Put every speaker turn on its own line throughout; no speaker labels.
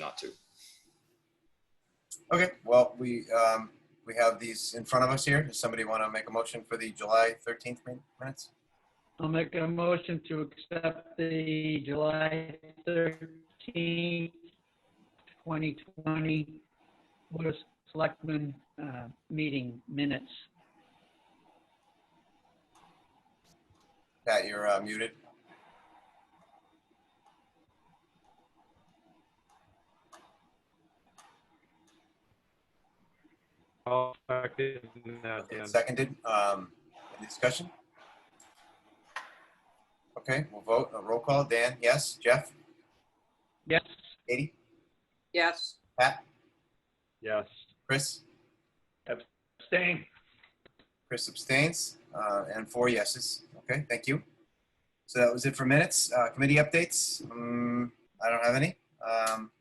not to.
Okay, well, we, um, we have these in front of us here. Does somebody want to make a motion for the July 13th min- minutes?
I'll make a motion to accept the July 13th, 2020 Board of Selectmen uh, meeting minutes.
Pat, you're uh, muted.
All affected now, Dan.
It's Seconded. Um, Any discussion? Okay, we'll vote. A roll call. Dan, yes. Jeff?
Yes,
Katie?
Yes,
Pat?
Yes.
Chris?
staying.
Chris abstains, uh, and four yeses. Okay, thank you. So that was it for minutes. Uh, committee updates. Um, I don't have any. Um,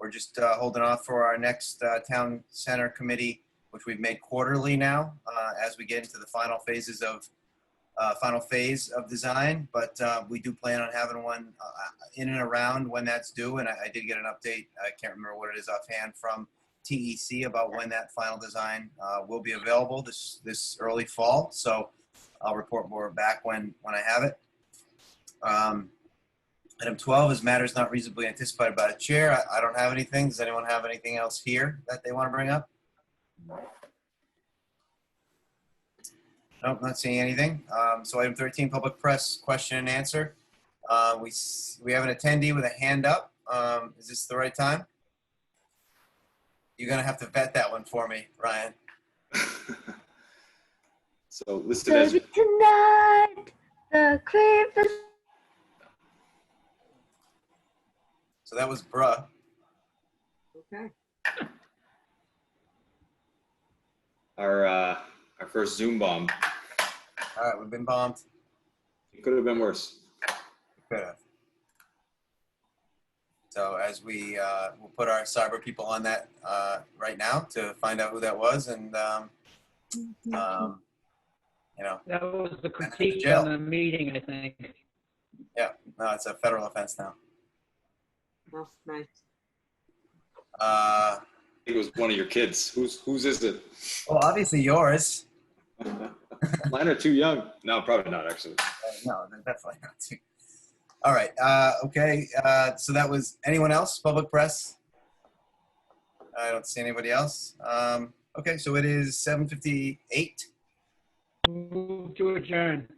we're just uh, holding off for our next uh, town center committee, which we've made quarterly now uh, as we get into the final phases of uh, final phase of design. But uh, we do plan on having one uh, in and around when that's due. And I, I did get an update. I can't remember what it is offhand from TEC E about when that final design uh, will be available this, this early fall. So I'll report more back when, when I have it. Um, Item 12 is matters not reasonably anticipated by the chair. I- I don't have anything. Does anyone have anything else here that they want to bring up? Nope, not seeing anything. Um, So item 13, public press question and answer. Uh, We, s- we have an attendee with a hand up. Um, Is this the right time? You're gonna have to vet that one for me, Ryan.
so listed as
Baby tonight, the creepers.
So that was bruh.
okay.
our uh, our first Zoom bomb.
All right, we've been bombed.
It could have been worse.
Good. enough. So as we uh, we'll put our cyber people on that uh, right now to find out who that was and um, um, you know
That was the critique
Jail.
on the meeting, I think.
no, it's a federal offense now.
Well, nice.
Uh,
It was one of your kids. Who's whose is it?
well, obviously yours.
Mine are too young. No, probably not actually.
Uh, no, they're definitely not. Too. All right. Uh, okay. Uh, so that was anyone else? Public press. I don't see anybody else. Um, okay. So it is 7:58.
Move to adjourn.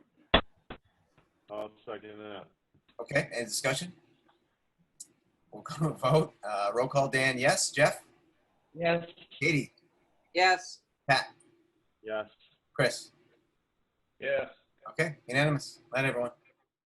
I'll second that.
Okay. Any discussion? We'll go to a vote. Uh, roll call. Dan. Yes. Jeff.
Yes.
Katie.
Yes.
Pat.
Yes.
Chris.
Yes.
Okay. Unanimous. Night, everyone.